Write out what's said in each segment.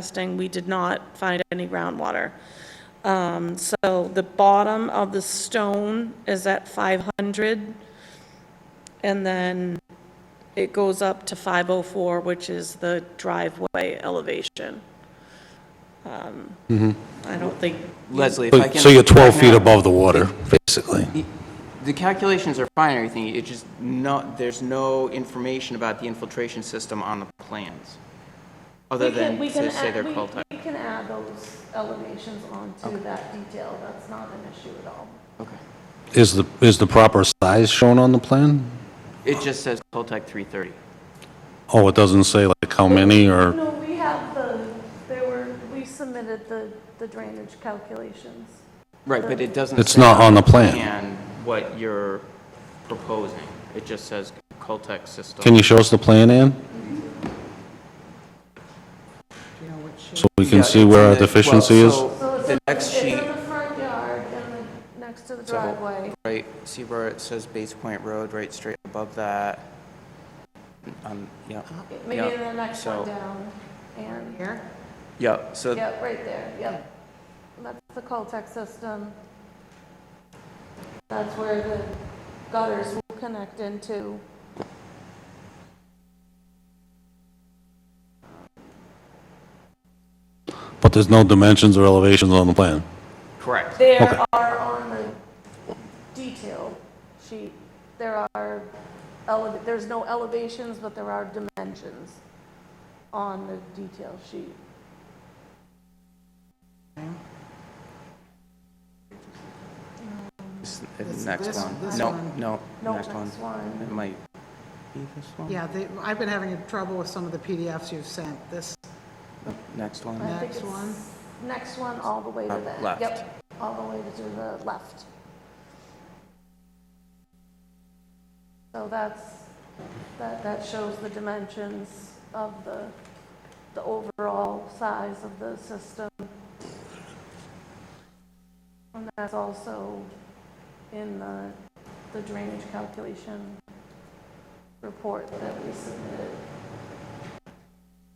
testing, we did not find any groundwater. Um, So the bottom of the stone is at 500, and then it goes up to 504, which is the driveway elevation. Um, I don't think, Leslie, if I So can... so you're 12 back feet now. above the water, basically. The calculations are fine and everything, it just not, there's no information about the infiltration system on the plans, other we can, than we to can, say they're add- we cul we can add those elevations onto that detail, that's not an issue at all. Okay. Is the, is the proper size shown on the plan? It just says cul 330. Oh, it doesn't say like how many or, No, we have the, they were, we submitted the the drainage calculations. Right, but it doesn't it's say not on the plan. And what you're proposing, it just says cul system. Can you show us the plan, Ann? So we can Yeah, see it's where in our the- well, deficiency is? so So it's The in- next sheet, It's in the front yard and the- next to the So- driveway. right, see where it says Base Point Road, right, straight above that? Um, yeah, Maybe the next so- one down. And here? yeah, so Yep, right there, yep. And That's the cul-de-sac system. That's where the gutters will connect into. But there's no dimensions or elevations on the plan. Correct. There are on the detail sheet, there are, ele- there's no elevations, but there are dimensions on the detail sheet. This- the Next this- one. this No, one. no, No, next one. next one. It might be this one? Yeah, they, I've been having trouble with some of the PDFs you've sent. This, Next I one? think Next it's one. Next one, all the way to Uh, the. left. Yep, all the way to the left. So that's, that, that shows the dimensions of the, the overall size of the system. And that's also in the, the drainage calculation report that we submitted.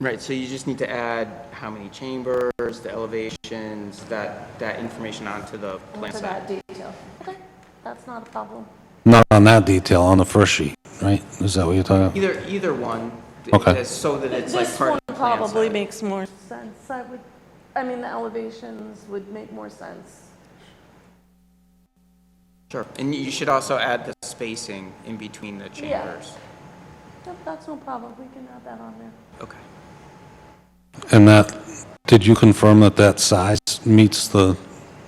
Right, so you just need to add how many chambers, the elevations, that, that information onto the plan To set. that detail. Okay, that's not a problem. Not on that detail, on the first sheet, right? Is that what you're talking about? Either, either one, th- Okay. that's so that it's like This part one of the plan probably set. makes more sense. I would, I mean, the elevations would make more sense. Sure, and you should also add the spacing in between the chambers. Yep, That's no problem. We can add that on there. Okay. And that, did you confirm that that size meets the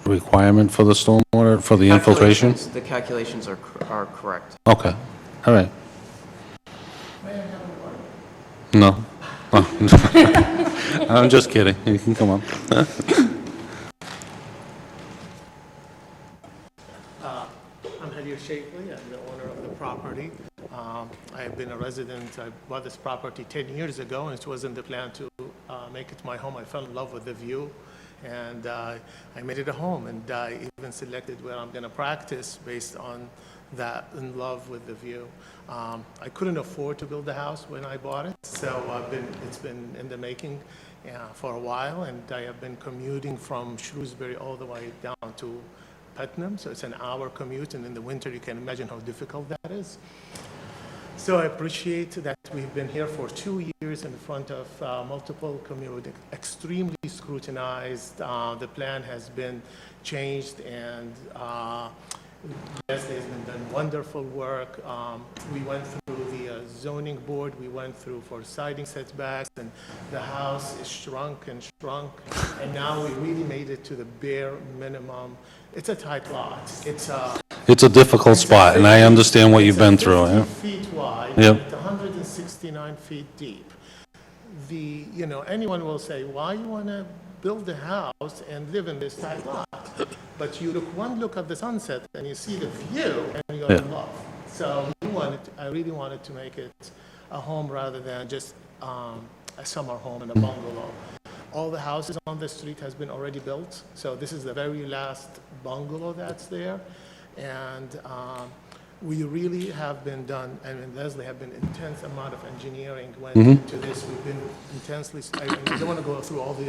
requirement for the stormwater, for the infiltration? Calculations- The calculations are, cor- are correct. Okay, all right. No. Oh. I'm just kidding, you can come up. I'm Helio Shapley, I'm the owner of the property. Um, I have been a resident, I bought this property 10 years ago, and it was in the plan to uh, make it my home. I fell in love with the view, and uh, I made it a home, and I even selected where I'm going to practice based on that, in love with the view. Um, I couldn't afford to build the house when I bought it, so I've been, it's been in the making uh, for a while, and I have been commuting from Shrewsbury all the way down to Putnam, so it's an hour commute, and in the winter, you can imagine how difficult that is. So I appreciate that we've been here for two years in front of uh, multiple community, extremely scrutinized. Uh, The plan has been changed, and uh, Leslie has been done wonderful work. Um, We went through the uh, zoning board, we went through for siding setbacks, and the house is shrunk and shrunk, and now we really made it to the bare minimum. It's a tight lot. It's uh, a It's a difficult spot, and I understand what you've been through, eh? yeah? it's 50 feet wide, Yeah. and it's 169 feet deep. The, you know, anyone will say, why you want to build a house and live in this tight lot? But you look, one look at the sunset and you see the view and you're in Yeah. love. So we wanted, I really wanted to make it a home rather than just um, a summer home and a bungalow. All the houses on the street has been already built, so this is the very last bungalow that's there. And um, we really have been done, I mean, Leslie have been intense amount of engineering went into this. We've been intensely, I mean, I don't want to go through all the